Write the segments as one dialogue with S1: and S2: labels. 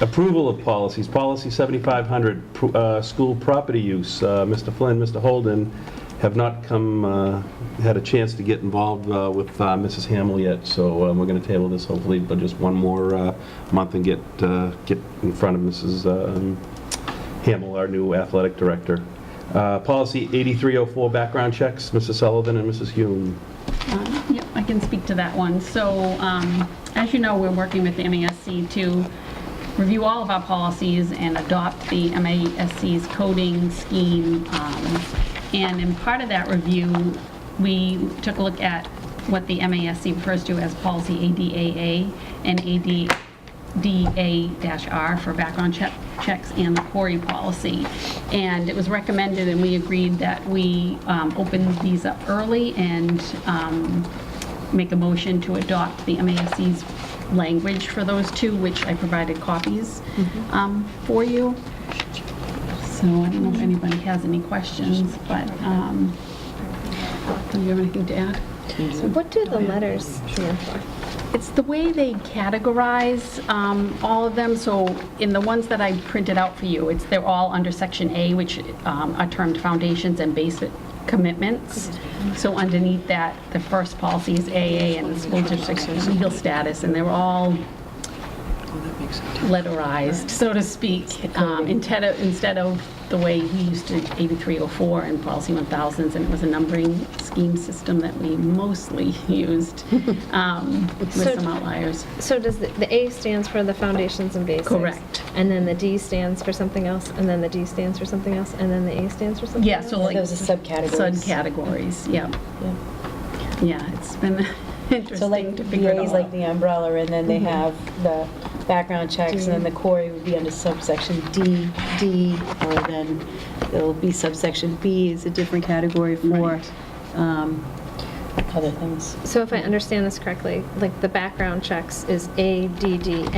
S1: Approval of policies. Policy 7500, pr- uh, school property use. Uh, Mr. Flynn, Mr. Holden have not come, uh, had a chance to get involved uh, with uh, Mrs. Hamill yet, so uh, we're going to table this hopefully, but just one more uh, month and get, uh, get in front of Mrs. um, Hamill, our new athletic director. Uh, Policy 8304, background checks, Mrs. Sullivan and Mrs. Hume.
S2: Um, Yep, I can speak to that one. So, um, as you know, we're working with the MASC to review all of our policies and adopt the MASC's coding scheme. Um, And in part of that review, we took a look at what the MASC refers to as policy ADAA and ADDA-R for background check- checks and the query policy. And it was recommended, and we agreed that we um, open these up early and um, make a motion to adopt the MASC's language for those two, which I provided copies um, for you. So I don't know if anybody has any questions, but um, do you have anything to add?
S3: What do the letters stand for?
S2: It's the way they categorize um, all of them, so in the ones that I printed out for you, it's, they're all under Section A, which um, are termed foundations and basic commitments. So underneath that, the first policy is AA and the school district's legal status, and they're all letterized, so to speak, um, instead of, instead of the way we used to 8304 and policy 1000s, and it was a numbering scheme system that we mostly used, um, with
S3: So-
S2: some outliers.
S3: So does the, the A stands for the foundations and basics?
S2: Correct.
S3: And then the D stands for something else, and then the D stands for something else, and then the A stands for something
S2: Yeah,
S3: else?
S2: so like.
S4: Those are subcategories.
S2: Subcategories, yeah,
S4: Yeah.
S2: yeah, it's been
S4: So like
S2: interesting to figure it
S4: VA is
S2: all
S4: like
S2: out. Mm-hmm.
S4: the umbrella, and then they have the background checks, and then the query would be under subsection D, D, or then it'll be subsection B is a different category for
S2: Right.
S4: um, other things.
S3: So if I understand this correctly, like the background checks is ADDA,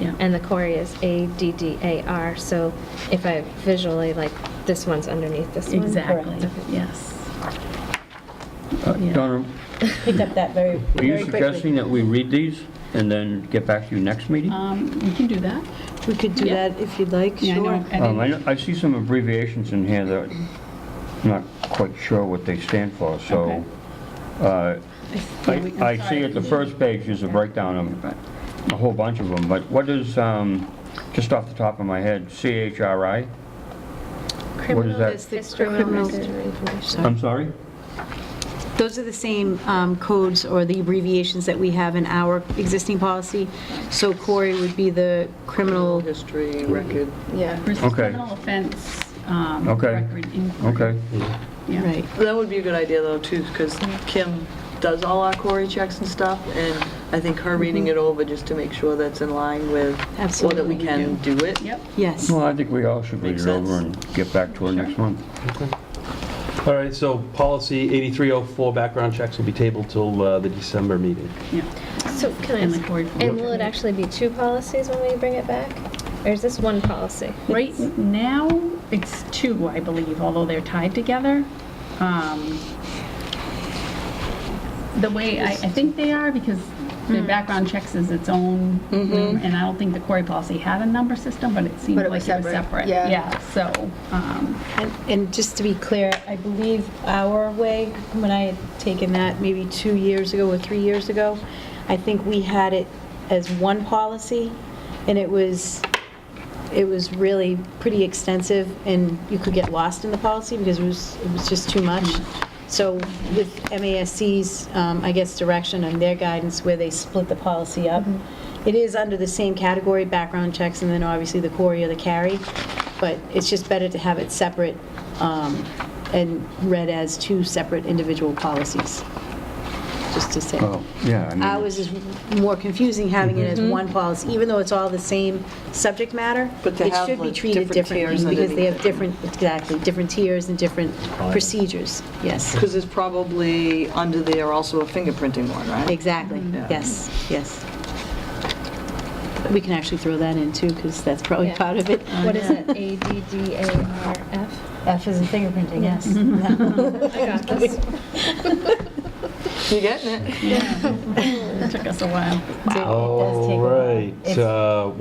S2: Yeah.
S3: and the query is ADDAR, so if I visually, like, this one's underneath this one?
S2: Exactly,
S4: Correct.
S2: yes.
S5: Uh,
S2: Yeah.
S5: Donna,
S4: Picked up that very,
S5: are you
S4: very quickly.
S5: suggesting that we read these and then get back to you next meeting? Um,
S2: Um, We can do that.
S6: We could do
S2: Yeah.
S6: that if you'd like,
S2: Yeah, I know,
S6: sure.
S2: I didn't-
S5: Um, I know- I see some abbreviations in here that I'm not quite sure what they stand for, so uh,
S2: yeah,
S5: I
S2: we- I'm
S5: I
S2: sorry.
S5: see at the first page is a breakdown of a whole bunch of them, but what is, um, just off the top of my head, CHRI?
S3: Criminal
S5: that?
S6: It's the
S3: history
S6: criminal-
S3: record information.
S5: I'm sorry?
S6: Those are the same um, codes or the abbreviations that we have in our existing policy. So Corey would be the criminal,
S7: History, record.
S4: Yeah.
S2: Versus
S5: Okay.
S2: Criminal offense. um,
S5: Okay.
S2: record inquiry.
S5: Okay.
S2: Yeah.
S6: right.
S7: That would be a good idea, though, too, because Kim does all our query checks and stuff, and I think her reading it over just to make sure that's in line with, or that
S6: Absolutely,
S7: we
S6: you
S7: can do it.
S2: Yep.
S6: Yes.
S5: Well, I think we all should read
S7: Makes
S5: it over
S7: sense.
S5: and get back to her next month.
S1: All right, so policy 8304, background checks will be tabled till uh, the December meeting.
S2: Yeah.
S3: So can I
S2: And the
S3: ask,
S2: query form.
S3: and will it actually be two policies when we bring it back? Or is this one policy?
S2: Right now, it's two, I believe, although they're tied together. Um, The way, I, I think they are, because
S8: Hmm.
S2: the background checks is its own, and I don't think the query policy had a number system, but it seemed
S8: Mm-hmm. But
S2: like
S8: it
S2: it was
S8: was separate,
S2: separate.
S8: yeah.
S2: Yeah, so, um,
S4: And- And just to be clear, I believe our way, when I had taken that maybe two years ago or three years ago, I think we had it as one policy, and it was, it was really pretty extensive, and you could get lost in the policy because it was, it was just too much. So with MASC's, um, I guess, direction and their guidance, where they split the policy up, it is under the same category, background checks, and then obviously the query or the carry, but it's just better to have it separate um, and read as two separate individual policies, just to say.
S5: Well, yeah, I mean...
S4: Ours is more confusing having it as one policy, even though it's all the same subject matter.
S7: But to have,
S4: It should be
S7: like,
S4: treated
S7: different
S4: differently,
S7: tiers
S4: because they have
S7: underneath it.
S4: different, exactly, different tiers and different procedures, yes.
S7: Because there's probably under there also a fingerprinting one, right?
S4: Exactly,
S7: Yeah.
S4: yes, yes. We can actually throw that in too, because that's probably
S3: Yeah.
S4: part of it.
S3: What is it? A D D A R F?
S4: F is in fingerprinting, yes.
S3: I got this.
S7: You getting it?
S2: it took us a while.
S1: All right, uh,